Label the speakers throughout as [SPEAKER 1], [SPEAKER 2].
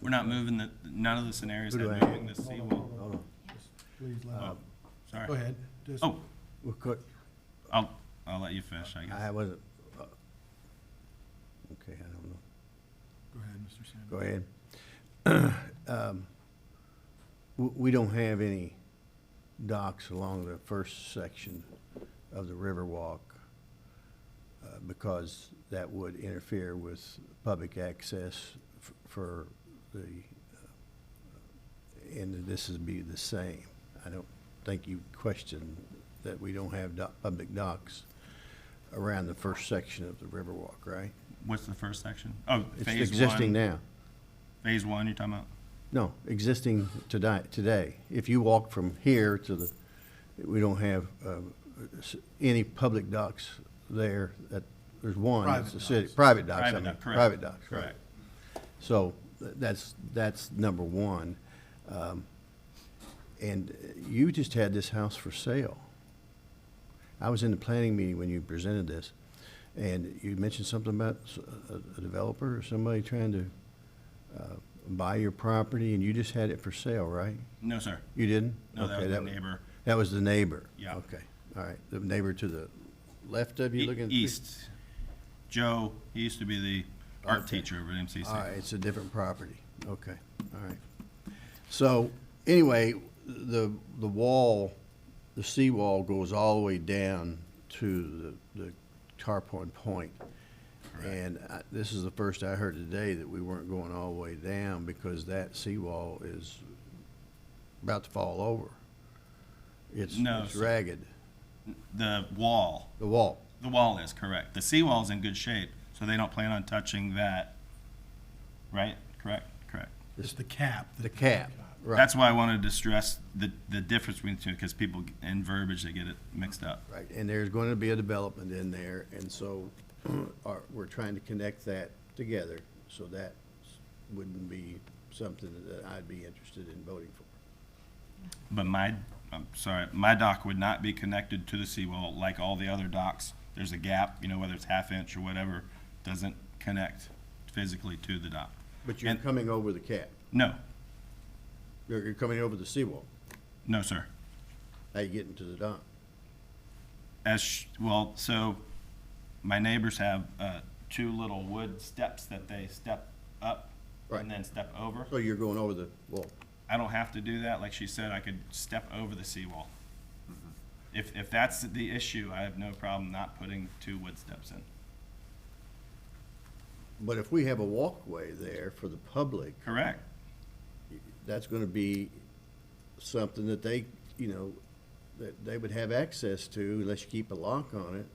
[SPEAKER 1] We're not moving the, none of the scenarios
[SPEAKER 2] Who do
[SPEAKER 1] have
[SPEAKER 2] I-
[SPEAKER 1] moving the
[SPEAKER 3] Hold on,
[SPEAKER 1] seawall.
[SPEAKER 3] hold
[SPEAKER 2] Hold
[SPEAKER 3] on.
[SPEAKER 2] on,
[SPEAKER 3] Just Please, let
[SPEAKER 2] Uh,
[SPEAKER 3] him- go
[SPEAKER 1] Sorry.
[SPEAKER 3] ahead, just,
[SPEAKER 1] Oh,
[SPEAKER 2] we're cut,
[SPEAKER 1] I'll, I'll let you finish, I guess.
[SPEAKER 2] I wasn't, uh, okay, I don't know.
[SPEAKER 3] go ahead, Mr. Sanders.
[SPEAKER 2] Go ahead. Um, w- We don't have any docks along the first section of the Riverwalk uh, because that would interfere with public access f- for the, uh, and this would be the same. I don't think you question that we don't have dock- public docks around the first section of the Riverwalk, right?
[SPEAKER 1] What's the first section? Oh,
[SPEAKER 2] It's
[SPEAKER 1] phase
[SPEAKER 2] existing
[SPEAKER 1] one.
[SPEAKER 2] now.
[SPEAKER 1] Phase one, you're talking about?
[SPEAKER 2] No, existing today, today. If you walk from here to the, we don't have uh, s- any public docks there. That There's one, that's the
[SPEAKER 3] Private
[SPEAKER 2] city.
[SPEAKER 3] docks.
[SPEAKER 2] Private docks. I
[SPEAKER 1] Private dock, correct.
[SPEAKER 2] mean, Private docks, right.
[SPEAKER 1] Correct.
[SPEAKER 2] So th- that's, that's number one. Um, And you just had this house for sale. I was in the planning meeting when you presented this, and you mentioned something about s- a- a developer or somebody trying to uh, buy your property, and you just had it for sale, right?
[SPEAKER 1] No, sir.
[SPEAKER 2] You didn't?
[SPEAKER 1] No, that
[SPEAKER 2] Okay,
[SPEAKER 1] was the neighbor.
[SPEAKER 2] That was the neighbor?
[SPEAKER 1] Yeah.
[SPEAKER 2] Okay, all right. The neighbor to the left of you
[SPEAKER 1] E-
[SPEAKER 2] looking?
[SPEAKER 1] East. Joe, he used to be the art
[SPEAKER 2] Okay.
[SPEAKER 1] teacher over at MCC.
[SPEAKER 2] All right, it's a different property. Okay, all right. So, anyway, the, the wall, the seawall goes all the way down to the, the Tarpon Point. And I- this is the first I heard today that we weren't going all the way down because that seawall is about to fall over. It's,
[SPEAKER 1] No,
[SPEAKER 2] it's
[SPEAKER 1] so-
[SPEAKER 2] ragged,
[SPEAKER 1] The wall,
[SPEAKER 2] the wall.
[SPEAKER 1] the wall is correct. The seawall's in good shape, so they don't plan on touching that. Right? Correct? Correct.
[SPEAKER 3] It's the cap. that
[SPEAKER 2] The
[SPEAKER 3] they
[SPEAKER 2] cap,
[SPEAKER 3] got.
[SPEAKER 2] right,
[SPEAKER 1] That's why I wanted to stress the, the difference between the two, because people, in verbiage, they get it mixed up.
[SPEAKER 2] right. And there's going to be a development in there, and so are, we're trying to connect that together, so that wouldn't be something that I'd be interested in voting for.
[SPEAKER 1] But my, I'm sorry, my dock would not be connected to the seawall like all the other docks. There's a gap, you know, whether it's half inch or whatever, doesn't connect physically to the dock.
[SPEAKER 2] But you're
[SPEAKER 1] And-
[SPEAKER 2] coming over the cap,
[SPEAKER 1] No,
[SPEAKER 2] you're, you're coming over the seawall,
[SPEAKER 1] no, sir.
[SPEAKER 2] how you getting to the dock?
[SPEAKER 1] As, sh- well, so my neighbors have, uh, two little wood steps that they step up
[SPEAKER 2] Right.
[SPEAKER 1] and then step over.
[SPEAKER 2] So you're going over the wall,
[SPEAKER 1] I don't have to do that. Like she said, I could step over the seawall. If, if that's the issue, I have no problem not putting two wood steps in.
[SPEAKER 2] but if we have a walkway there for the public,
[SPEAKER 1] Correct?
[SPEAKER 2] that's gonna be something that they, you know, that they would have access to unless you keep a lock on it.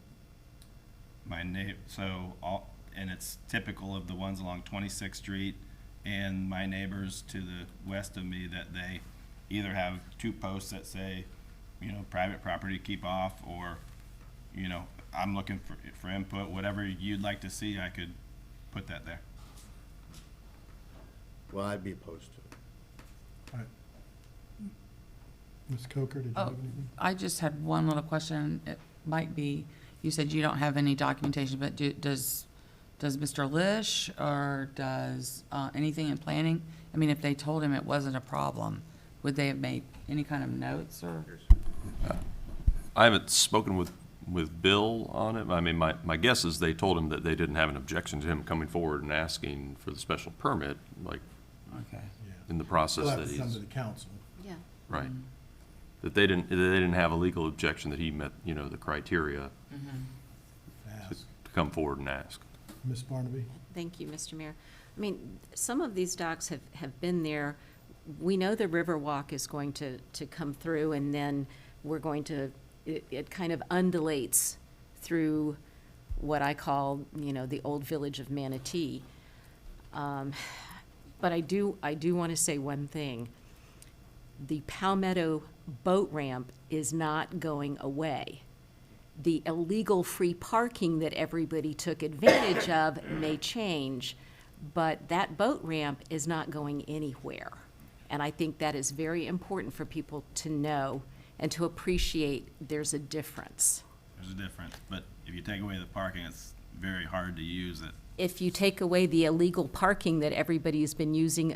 [SPEAKER 1] My neighbor, so all, and it's typical of the ones along Twenty-Sixth Street and my neighbors to the west of me that they either have two posts that say, you know, private property keep off or, you know, I'm looking for, for input, whatever you'd like to see, I could put that there.
[SPEAKER 2] Well, I'd be opposed to it.
[SPEAKER 3] Ms. Coker, did you
[SPEAKER 4] Oh.
[SPEAKER 3] have anything?
[SPEAKER 4] I just had one little question. It might be, you said you don't have any documentation, but do, does, does Mr. Lish or does, uh, anything in planning? I mean, if they told him it wasn't a problem, would they have made any kind of notes or?
[SPEAKER 5] I haven't spoken with, with Bill on it. I mean, my, my guess is they told him that they didn't have an objection to him coming forward and asking for the special permit, like,
[SPEAKER 4] Okay.
[SPEAKER 3] Yeah.
[SPEAKER 5] in the process
[SPEAKER 3] We'll have
[SPEAKER 5] that
[SPEAKER 3] to come to
[SPEAKER 5] he's,
[SPEAKER 3] the council.
[SPEAKER 6] Yeah.
[SPEAKER 5] right. That they didn't, that they didn't have a legal objection that he met, you know, the criteria
[SPEAKER 3] to
[SPEAKER 5] to
[SPEAKER 3] ask.
[SPEAKER 5] to come forward and ask.
[SPEAKER 3] Ms. Barnaby?
[SPEAKER 6] Thank you, Mr. Mayor. I mean, some of these docks have, have been there. We know the Riverwalk is going to, to come through, and then we're going to, it, it kind of undulates through what I call, you know, the old village of Manatee. Um, But I do, I do want to say one thing. The Palmetto Boat Ramp is not going away. the illegal free parking that everybody took advantage of may change, but that boat ramp is not going anywhere. And I think that is very important for people to know and to appreciate there's a difference.
[SPEAKER 1] There's a difference, but if you take away the parking, it's very hard to use it.
[SPEAKER 6] If you take away the illegal parking that everybody's been using